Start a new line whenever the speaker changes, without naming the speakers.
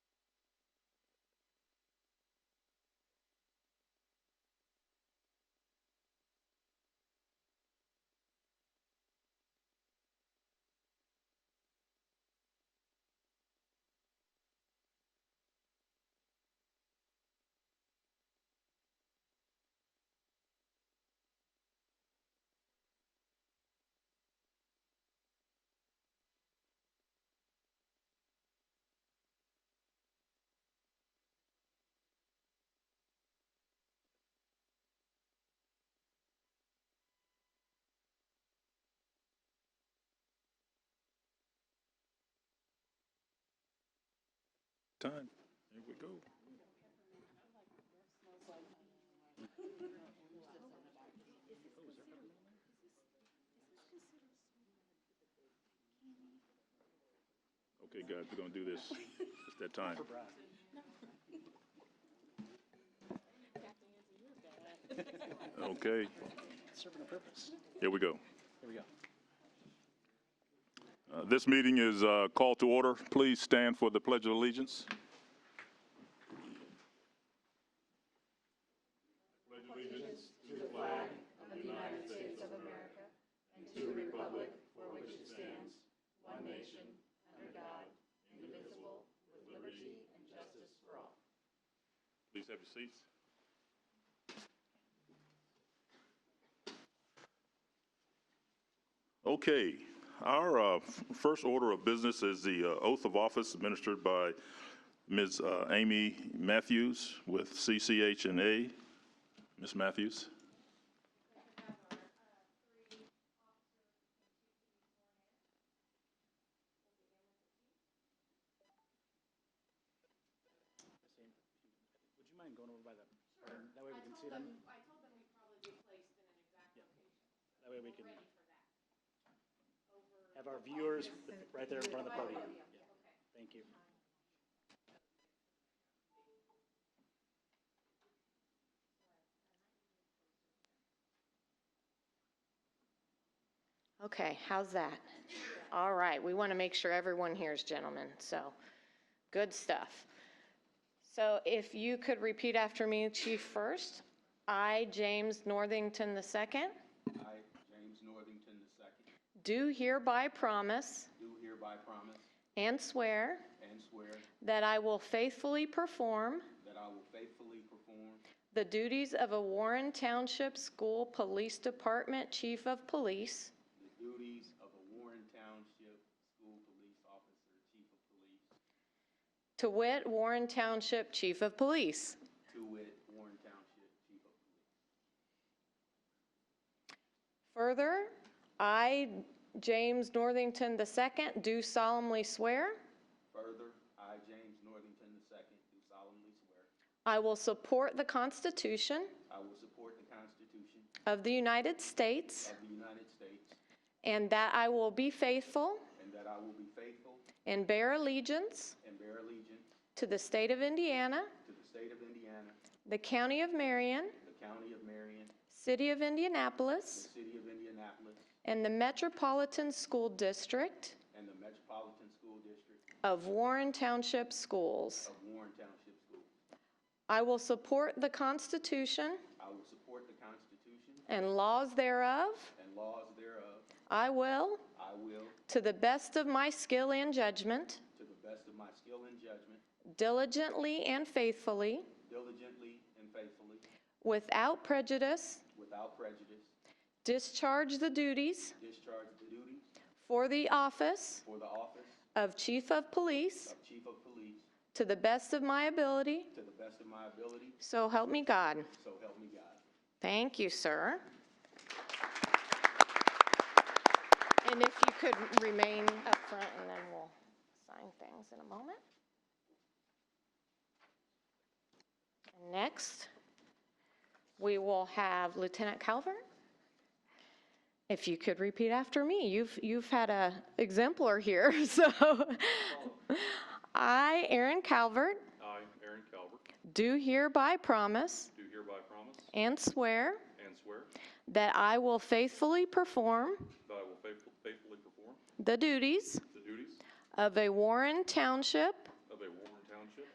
Time. Here we go. Okay, guys, we're gonna do this. It's that time. Okay,
Serving a purpose.
here we go.
Here we go.
Uh, This meeting is uh, called to order. Please stand for the Pledge of Allegiance. Please have your seats. Okay, our uh, f- first order of business is the uh, oath of office administered by Ms. uh, Amy Matthews with CCH and A. Ms. Matthews?
Would you mind going over by the, burn? that way we can see them? I told them we'd probably be placed in an exact location. That way we can. Have our viewers right there in front of the podium. Yeah. Thank you.
Okay, how's that? All right, we want to make sure everyone hears, gentlemen, so, good stuff. So if you could repeat after me, Chief, first. I, James Northington II,
I, James Northington II,
do hereby promise
do hereby promise
and swear
and swear
that I will faithfully perform
that I will faithfully perform
the duties of a Warren Township School Police Department Chief of Police
the duties of a Warren Township School Police Officer, Chief of Police,
to wit, Warren Township Chief of Police.
to wit, Warren Township Chief of Police.
Further, I, James Northington II, do solemnly swear
Further, I, James Northington II, do solemnly swear
I will support the Constitution
I will support the Constitution
of the United States
of the United States
and that I will be faithful
and that I will be faithful
and bear allegiance
and bear allegiance
to the state of Indiana,
to the state of Indiana,
the county of Marion,
the county of Marion,
city of
the
Indianapolis,
city of Indianapolis,
and the Metropolitan School District
and the Metropolitan School District
of Warren Township Schools.
of Warren Township School.
I will support the Constitution
I will support the Constitution
and laws thereof.
and laws thereof.
I will,
I will,
To the best of my skill and judgment,
to the best of my skill and judgment,
diligently and faithfully,
diligently and faithfully,
without prejudice,
without prejudice,
discharge the duties
discharge the duties
for the office
for the office
of Chief of Police
of Chief of Police
to the best of my ability,
to the best of my ability,
so help me God.
so help me God.
Thank you, sir. And if you could remain up front, and then we'll sign things in a moment. And Next, we will have Lieutenant Calvert. If you could repeat after me, you've, you've had a exemplar here, so. I, Aaron Calvert,
I, Aaron Calvert,
do hereby promise
do hereby promise
and swear
and swear
That I will faithfully perform
that I will faithful- faithfully perform
the duties
the duties
of a Warren Township